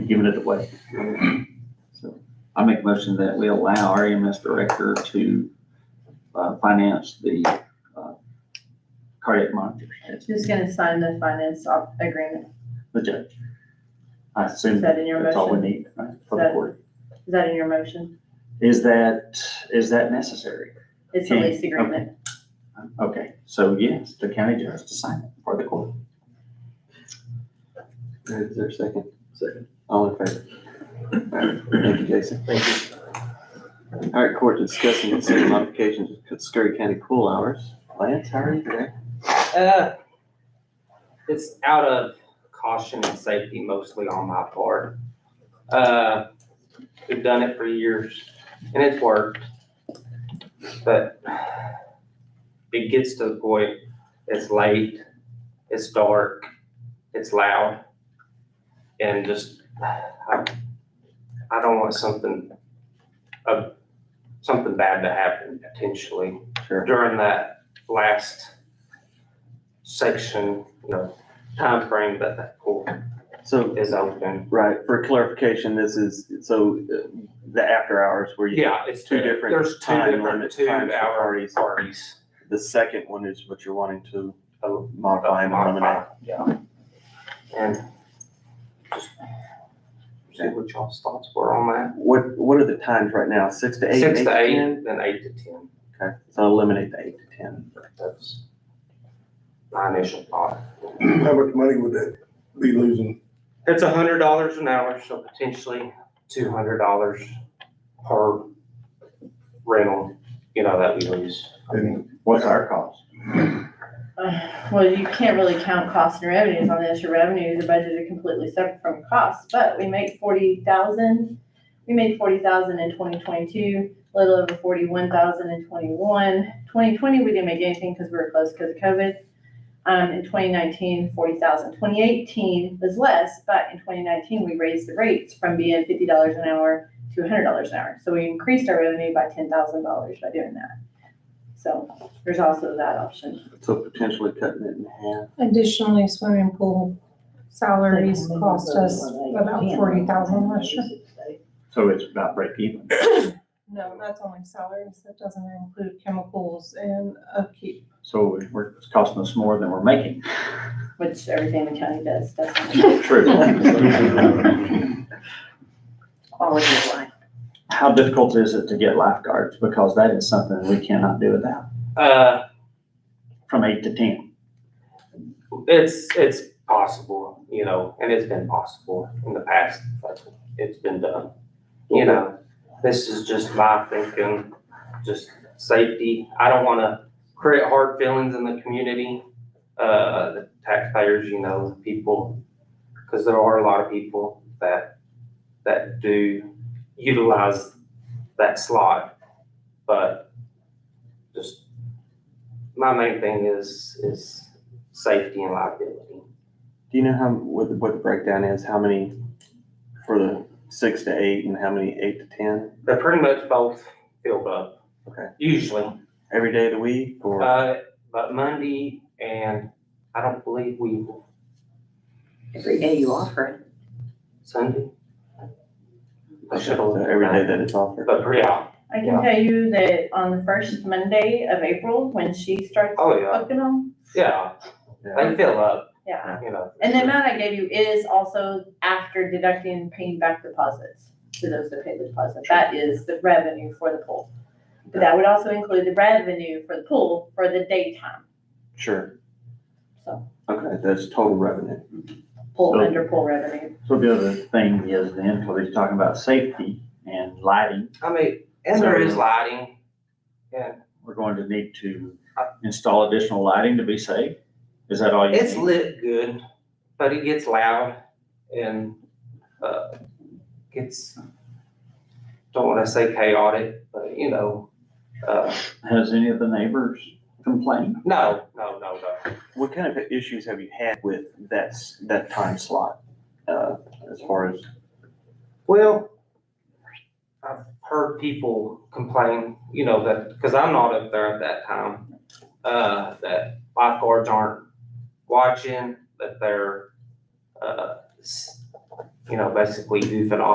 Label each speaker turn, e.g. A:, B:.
A: giving it away.
B: So I make a motion that we allow
A: E
B: our EMS director to uh, finance the uh, cardiac monitors.
C: Who's gonna sign the finance op- agreement?
A: The judge. I
C: Is
A: assume
C: that in your
A: that's all we
C: motion?
A: need, right, for the
C: That-
A: court.
C: Is that in your motion?
A: Is that, is that necessary?
C: It's a
A: Okay,
C: lease agreement.
A: Okay, so yes, the county judge to sign it for the court.
D: Is there a second? Second. All in favor? Thank you, Jason. Thank you. All right, court discussing consider modifications to Scurry County pool hours. Lance, how are you today?
E: Uh, it's out of caution and safety mostly on my part. Uh, we've done it for years and it's worked. But it gets to the point, it's late, it's dark, it's loud. And just, I, I don't want something, uh, something bad to happen potentially
D: Sure.
E: during that last section, you know, timeframe that that pool
D: So,
E: is open.
D: right, for clarification, this is, so uh, the after hours where you,
E: Yeah, it's
D: Two
E: two
D: different
E: different, there's two
D: time
E: different
D: limits,
E: two
D: times for
E: hour
D: parties.
E: parties.
D: the second one is what you're wanting to uh,
E: Oh,
D: modify and eliminate.
E: Yeah. And just see what y'all's thoughts were on
D: What, what are the times right now? Six to
E: that.
D: eight?
E: Six to eight,
D: 10?
E: then eight to ten.
D: Okay, so eliminate the eight to ten.
E: That's my initial thought.
F: How much money would that be losing?
E: It's a hundred dollars an hour, so potentially two hundred dollars per rental, you know, that we lose.
F: And
A: What's our cost?
C: Uh, Well, you can't really count costs and revenues on this. Your revenues are budgeted completely separate from costs, but we make forty thousand. We made forty thousand in twenty twenty-two, a little over forty-one thousand in twenty-one. Twenty twenty, we didn't make anything because we were closed because of COVID. Um, in 2019, 40,000. 2018 was less, but in twenty nineteen, we raised the rates from being fifty dollars an hour to hundred dollars an hour. So we increased our revenue by ten thousand dollars by doing that. So there's also that option.
D: So potentially cutting it in half.
G: Additionally, swimming pool salaries cost us about forty thousand last year.
A: So it's about break even.
G: No, that's only salaries, that doesn't include chemicals and upkeep.
A: So we're, it's costing us more than we're making.
C: which everything the county does, doesn't it?
A: True.
C: Quality of life.
A: How difficult is it to get lifeguards? Because that is something we cannot do without,
E: Uh,
A: from eight to ten.
E: It's, it's possible, you know, and it's been possible in the past, but it's been done. You know, this is just my thinking, just safety. I don't wanna create hard feelings in the community, uh, the taxpayers, you know, the people. Cause there are a lot of people that, that do utilize that slot. But just, my main thing is, is safety and liability.
D: Do you know how, what, the- what the breakdown is? How many for the six to eight and how many eight to ten?
E: They're pretty much both filled up.
D: Okay.
E: Usually,
D: Every day of the week or?
E: uh, but Monday and I don't believe we will
H: Every day you offer it.
E: Sunday. I should have
D: So
E: looked.
D: every day that it's offered?
E: But yeah,
C: I
E: Yeah.
C: can tell you that on the first Monday of April, when she starts
E: oh yeah,
C: booking them,
E: yeah,
D: Yeah.
E: they fill up,
C: yeah.
E: you know.
C: And the amount I gave you is also after deducting and paying back deposits to those that pay the deposit. That is the revenue for the pool. But that would also include the revenue for the pool for the daytime,
D: Sure.
C: so
D: Okay, that's total revenue.
C: pool
A: So-
C: under pool revenue.
A: So the other thing is then, because he's talking about safety and lighting,
E: I mean, and there is lighting,
A: we're going to need to install additional lighting to be safe? Is that all you
E: it's
A: need?
E: lit good, but it gets loud and, uh, gets, don't wanna say chaotic, but you know, uh,
A: Has any of the neighbors complained?
E: no, no, no, no.
D: What kind of issues have you had with that, s- that time slot? Uh, as far as,
E: Well, I've heard people complain, you know, that, because I'm not up there at that time, uh, that lifeguards aren't watching, that they're, uh, s- you know, basically goofing off